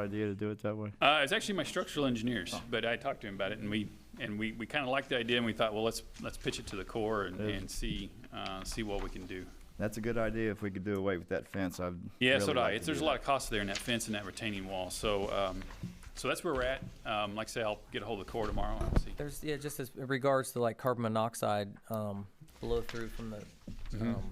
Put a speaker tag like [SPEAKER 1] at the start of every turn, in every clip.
[SPEAKER 1] idea to do it that way?
[SPEAKER 2] Uh, it's actually my structural engineers,
[SPEAKER 1] Oh.
[SPEAKER 2] but I talked to him about it, and we, and we, we kind of liked the idea, and we thought, well, let's, let's pitch it to the Corps and,
[SPEAKER 1] Yeah.
[SPEAKER 2] and see, uh, see what we can do.
[SPEAKER 1] That's a good idea if we could do away with that fence. I'd.
[SPEAKER 2] Yeah, so
[SPEAKER 1] really
[SPEAKER 2] do I.
[SPEAKER 1] like to
[SPEAKER 2] It's, there's
[SPEAKER 1] do
[SPEAKER 2] a lot
[SPEAKER 1] that.
[SPEAKER 2] of cost there in that fence and that retaining wall, so, um, so that's where we're at. Um, like I say, I'll get a hold of the Corps tomorrow and see.
[SPEAKER 3] There's, yeah, just as in regards to like carbon monoxide, um, blow through from
[SPEAKER 2] Mm-hmm.
[SPEAKER 3] the, um,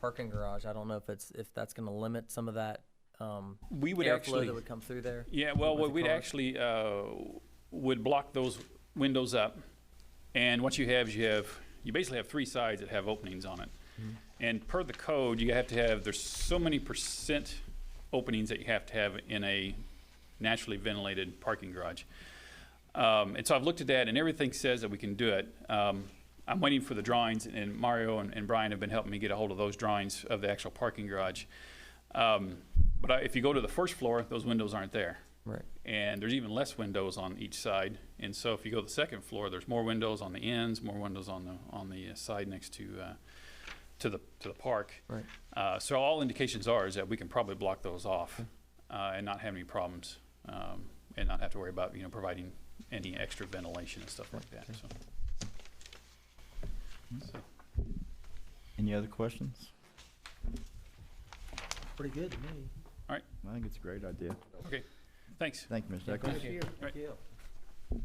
[SPEAKER 3] parking garage, I don't know if it's, if that's gonna limit some of that, um,
[SPEAKER 2] We would
[SPEAKER 3] airflow
[SPEAKER 2] actually,
[SPEAKER 3] that would come through there.
[SPEAKER 2] yeah, well,
[SPEAKER 3] with the
[SPEAKER 2] we'd
[SPEAKER 3] cars.
[SPEAKER 2] actually, uh, would block those windows up. And what you have is you have, you basically have three sides that have openings on it. And per the code, you have to have, there's so many percent openings that you have to have in a naturally ventilated parking garage. Um, and so I've looked at that, and everything says that we can do it. Um, I'm waiting for the drawings, and Mario and, and Brian have been helping me get a hold of those drawings of the actual parking garage. Um, but I, if you go to the first floor, those windows aren't there.
[SPEAKER 3] Right.
[SPEAKER 2] And there's even less windows on each side. And so if you go to the second floor, there's more windows on the ends, more windows on the on the uh, side next to uh, to the to the park.
[SPEAKER 3] Right.
[SPEAKER 2] Uh, so all indications are is that we can probably block those off uh, and not have any problems um, and not have to worry about you know providing any extra ventilation and stuff like that. So. So,
[SPEAKER 1] Any other questions?
[SPEAKER 4] Pretty good to me.
[SPEAKER 1] I think it's a great idea.
[SPEAKER 2] okay, thanks.
[SPEAKER 1] Thank you, Mr. Eccles.
[SPEAKER 2] you. Right.
[SPEAKER 4] Yeah.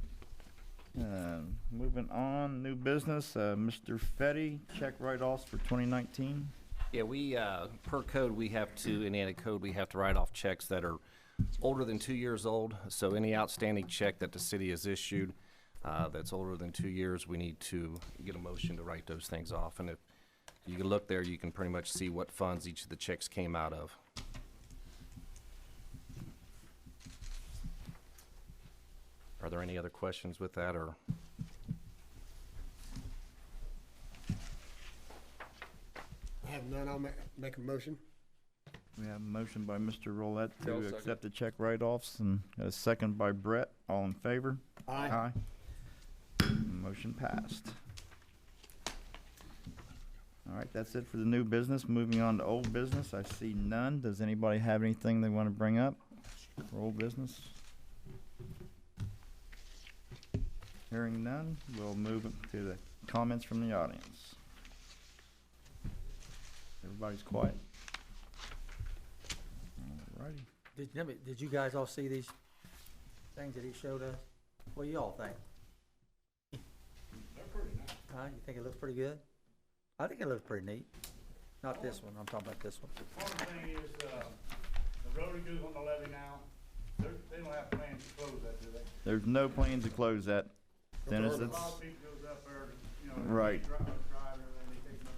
[SPEAKER 1] Um, Moving on, new business, uh, Mr. Fetty, check write-offs for 2019.
[SPEAKER 5] Yeah, we, uh, per code, we have to, in a code, we have to write off checks that are older than two years old. So any outstanding check that the city has issued uh, that's older than two years, we need to get a motion to write those things off. And if you can look there, you can pretty much see what funds each of the checks came out of. Are there any other questions with that, or?
[SPEAKER 6] Have none, I'll ma- make a motion.
[SPEAKER 1] We have a motion by Mr. Roulette to accept the check write-offs and a second by Brett. All in favor? Aye. Motion passed. All right, that's it for the new business. Moving on to old business, I see none. Does anybody have anything they want to bring up for old business? Hearing none, we'll move to the comments from the audience. Everybody's quiet. All righty.
[SPEAKER 4] Did, let me- did you guys all see these things that he showed us? What do y'all think? They're pretty nice. Huh, you think it looks pretty good? I think it looks pretty neat. Not this one, I'm talking about this one.
[SPEAKER 7] One thing is, uh, the road crews on the levee now, they're, they don't have plans to close that, do they?
[SPEAKER 1] There's no plan to close that. Dennis,
[SPEAKER 7] A lot
[SPEAKER 1] that's,
[SPEAKER 7] of people goes up there, you know.
[SPEAKER 1] Right.
[SPEAKER 7] they Drive, drive, and then they take much,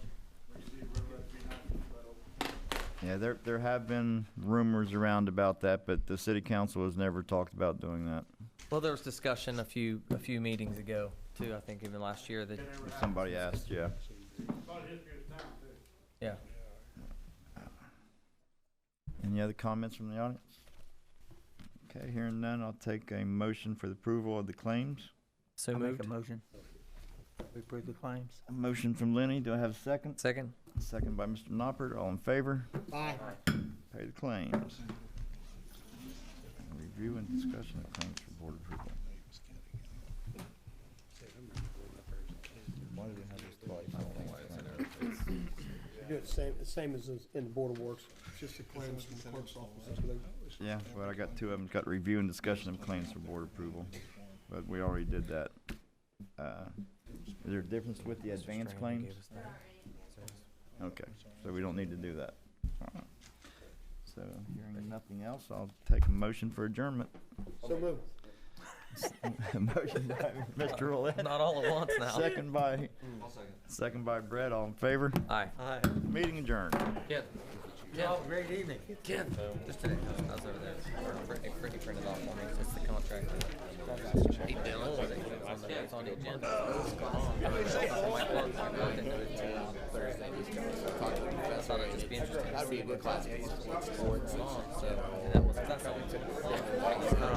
[SPEAKER 7] we see the road left behind, but
[SPEAKER 1] yeah, there, there have been rumors around about that, but the city council has never talked about doing that.
[SPEAKER 3] Well, there was discussion a few, a few meetings ago too, I think even last year that,
[SPEAKER 7] they were
[SPEAKER 1] If
[SPEAKER 7] out.
[SPEAKER 1] somebody asked, yeah.
[SPEAKER 7] It's all history of time, too.
[SPEAKER 3] yeah.
[SPEAKER 1] Any other comments from the audience? Okay, hearing none, I'll take a motion for the approval of the claims.
[SPEAKER 3] So
[SPEAKER 4] I make a
[SPEAKER 3] moved.
[SPEAKER 4] motion. We approve the claims.
[SPEAKER 1] A motion from Lenny, do I have a second?
[SPEAKER 3] Second?
[SPEAKER 1] Second by Mr. Noppert, all in favor?
[SPEAKER 6] Aye.
[SPEAKER 1] Pay the claims. Review and discussion of claims for board approval. Why do we have this twice? I don't know why it's in there.
[SPEAKER 6] You Do it same, the same as is in the Board of Works, just the claims from the clerk's office. that's what they-
[SPEAKER 1] Yeah, but I got two of them, got review and discussion of claims for board approval, but we already did that. Uh, Is there a difference with the advance claims? Okay, so we don't need to do that. All right. So, hearing nothing else, I'll take a motion for adjournment.
[SPEAKER 6] So move.
[SPEAKER 1] Motion by Mr. Roulette,
[SPEAKER 3] Not all at once now.
[SPEAKER 1] second by, second by Brett, all in favor,
[SPEAKER 3] Aye.
[SPEAKER 4] Aye.
[SPEAKER 1] meting adjourned.
[SPEAKER 3] Yeah.
[SPEAKER 4] Y'all have a great evening.
[SPEAKER 3] Just today, I was over there. Brittany Brittany printed off on me. It's the contract. Hey, Dylan. It's on the- It's on the agenda. I thought it'd just be interesting to see what class people sports on, so. And that was, that's all.